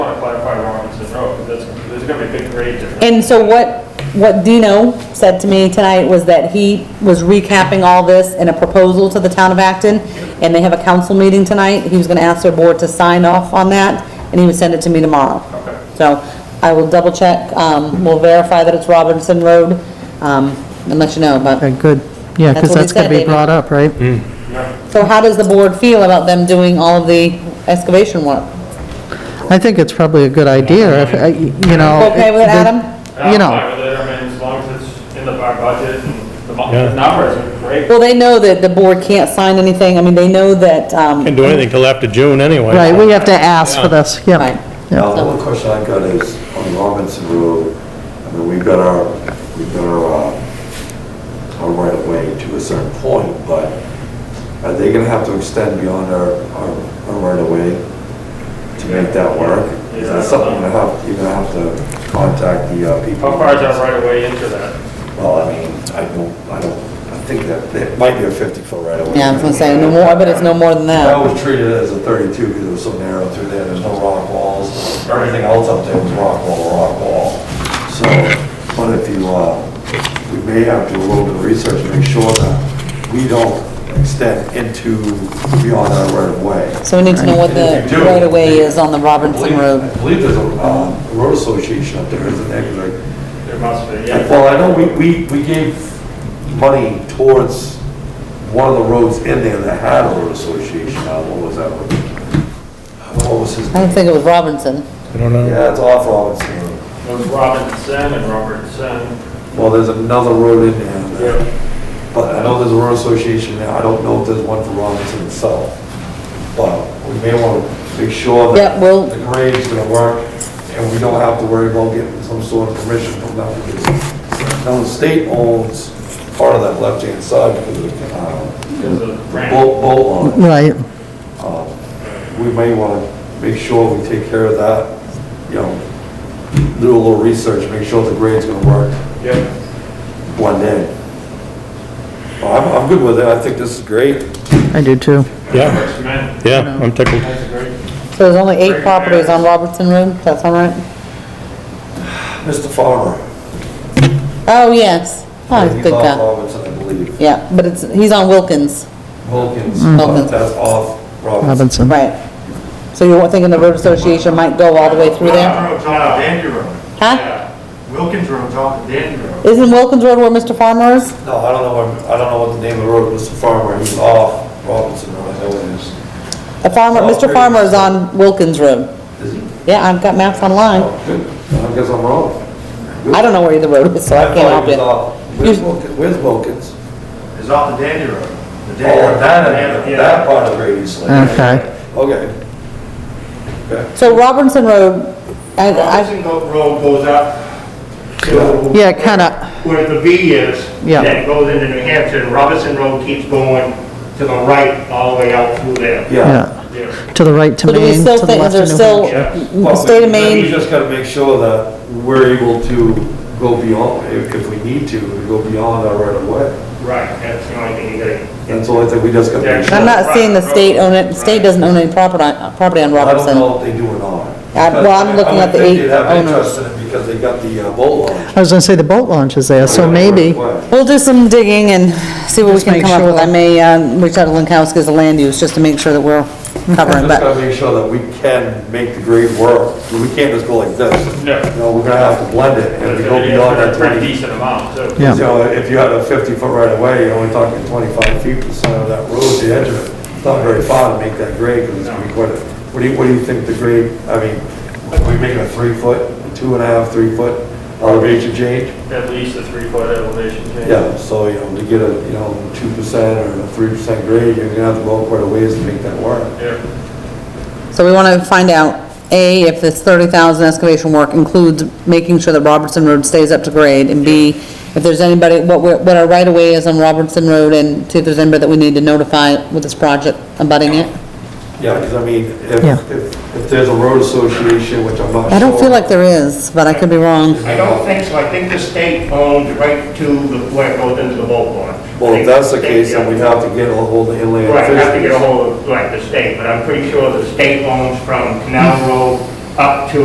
that's, there's gonna be a big grade difference. And so what, what Dino said to me tonight was that he was recapping all this in a proposal to the town of Acton, and they have a council meeting tonight. He was gonna ask their board to sign off on that, and he would send it to me tomorrow. Okay. So I will double check, um, we'll verify that it's Robinson Road, um, and let you know, but, Okay, good. Yeah, That's what because he that's said, going to be David. brought up, right? so how does the board feel about them doing all of the excavation work? I think it's probably a good idea, if, uh, y- you know. Okay with it, the- Adam? I'm You know, fine with it, I mean, as long as it's in the, our budget and the mu- Yeah. the numbers are great. Well, they know that the board can't sign anything, I mean, they know that, um, Can't do anything till after June anyway. right, we have to ask for this, Right. yeah. Yeah. Now, the one question I got is on Robinson Road, I mean, we've got our, we've got our, uh, our right of way to a certain point, but are they gonna have to extend beyond our, our, our right of way to make that work? Is that something you're gonna have, you're gonna have to contact the uh, people? How far is that right away into that? Well, I mean, I don't, I don't, I think that, it might be a fifty foot right of way. yeah, I was gonna say, no more, I bet it's no more than I that. always treated it as a 32 because it was so narrow through there, there's no rock walls. Everything else up there was rock wall, rock wall. So, but if you, uh, we may have to do a little bit of research to make sure that we don't extend into beyond our right of way. So we need to know what the If you do- right of way is on the I believe- Robinson Road. I believe there's a um, road association up there, isn't there? 'Cause I- There must be, yeah, yeah. Well, I know we, we, we gave money towards one of the roads in there that had a road association, uh, what was that one? What was his I don't name? think it was Robinson. I don't know. Yeah, it's off Robinson Road. It was Robinson and Robertson. Well, there's another road in there, but I know there's a road association there, I don't know if there's one for Robinson itself. But we may want to make sure Yeah, that well- the grade's gonna work, and we don't have to worry about getting some sort of permission from them, because now the state owns part of that left-hand side, because of the, uh, There's a ramp. boat, boat launch. Right, we may want to make sure we take care of that, you know, do a little research, make sure the grade's gonna work, Yep. blend in. Well, Oh, I'm, I'm good with it, I think this is great. I do too. Yeah, Works, man. yeah, I'm tickled. That's great. So there's only eight properties on Robinson Road, that's all right? Mr. Farmer. Oh, yes. Oh, he's a he's good off guy. Robinson, I believe. Yeah, but it's, he's on Wilkins, Wilkins, Wilkins. but that's off Robinson. Robinson. right. So you're thinking the road association might go all the way through there? Wilkins Road's off of Dandy Road. Huh? Wilkins Road's off of Dandy Road. Isn't Wilkins Road where Mr. Farmer is? No, I don't know, what- I don't know what the name of the road, Mr. Farmer, he's off Robinson, Road, I know it is. A farmer, Oh, Mr. great. Farmer is on Wilkins Road. Is he? Yeah, I've got maps online. Oh, good, I guess I'm wrong. I don't know where the road is, so I thought can't help he was you. off- Where's Wilkins? Where's Wilkins? It's off of Dandy Road. The Oh, Dandy Road- that, that part of Grady's Lane. Okay, Okay. Okay. So Robinson Road, I, I, Robinson Go- Road goes up to. yeah, kind of, Where the V is. Yeah. Then it goes into New Hampshire, and Robinson Road keeps going to the right all the way out through there. Yeah. yeah, There. to the right to so do we Maine, still to the think, is left to there New still, Hampshire. the state of We Maine, just gotta make sure that we're able to go beyond, if if we need to, we go beyond our right of way. Right, that's the only thing you gotta. That's the only thing we just gotta make sure. I'm not seeing the state own it, the state doesn't own any property, on- property on I don't Robinson. know if they do or not. I- well, I'm looking at the I would think eight they'd have owners. interest in it because they got the uh, boat launch. I was going to say the boat launch is there, so maybe. We'll do some digging and see what we Just can make come up sure with. I that- may, uh, reach out to Lankowski as a land use, just to make sure that we're covering, Just but, gotta make sure that we can make the grade work. We can't just go like this. No. No, we're gonna have to blend it and There's we gonna go be beyond a that pretty 20 decent amount, too. Yeah. So if you had a 50-foot right-of-way, you're only talking 25 feet from the center of that road, the edge of it. It's not very far to make that grade, because it's going to be quite a, what do you, what do you think the grade, I mean, are we making a three-foot, two and a half, uh, three-foot elevation change? At least a three-foot elevation change. Yeah, so, you know, to get a, you know, 2% or a 3% grade, you're going to have to go quite a ways to make that work. Yeah. so we wanna find out, A, if this thirty thousand excavation work includes making sure that Robertson Road stays up to grade, and B, if there's anybody, what, we're- what our right-of-way is on Robertson Road, and see if there's anybody that we need to notify with this project abutting it. Yeah, because I mean, if, Yeah. if if there's a road association, which I'm not sure. I don't feel like there is, but I could be wrong. I don't think so, I think the state owns right to the, where it goes into the boat launch. Well, if that's the case, then we'd have to get a hold of inland Right, officials. have to get a hold of, like, the state, but I'm pretty sure the state owns from Canal Road up to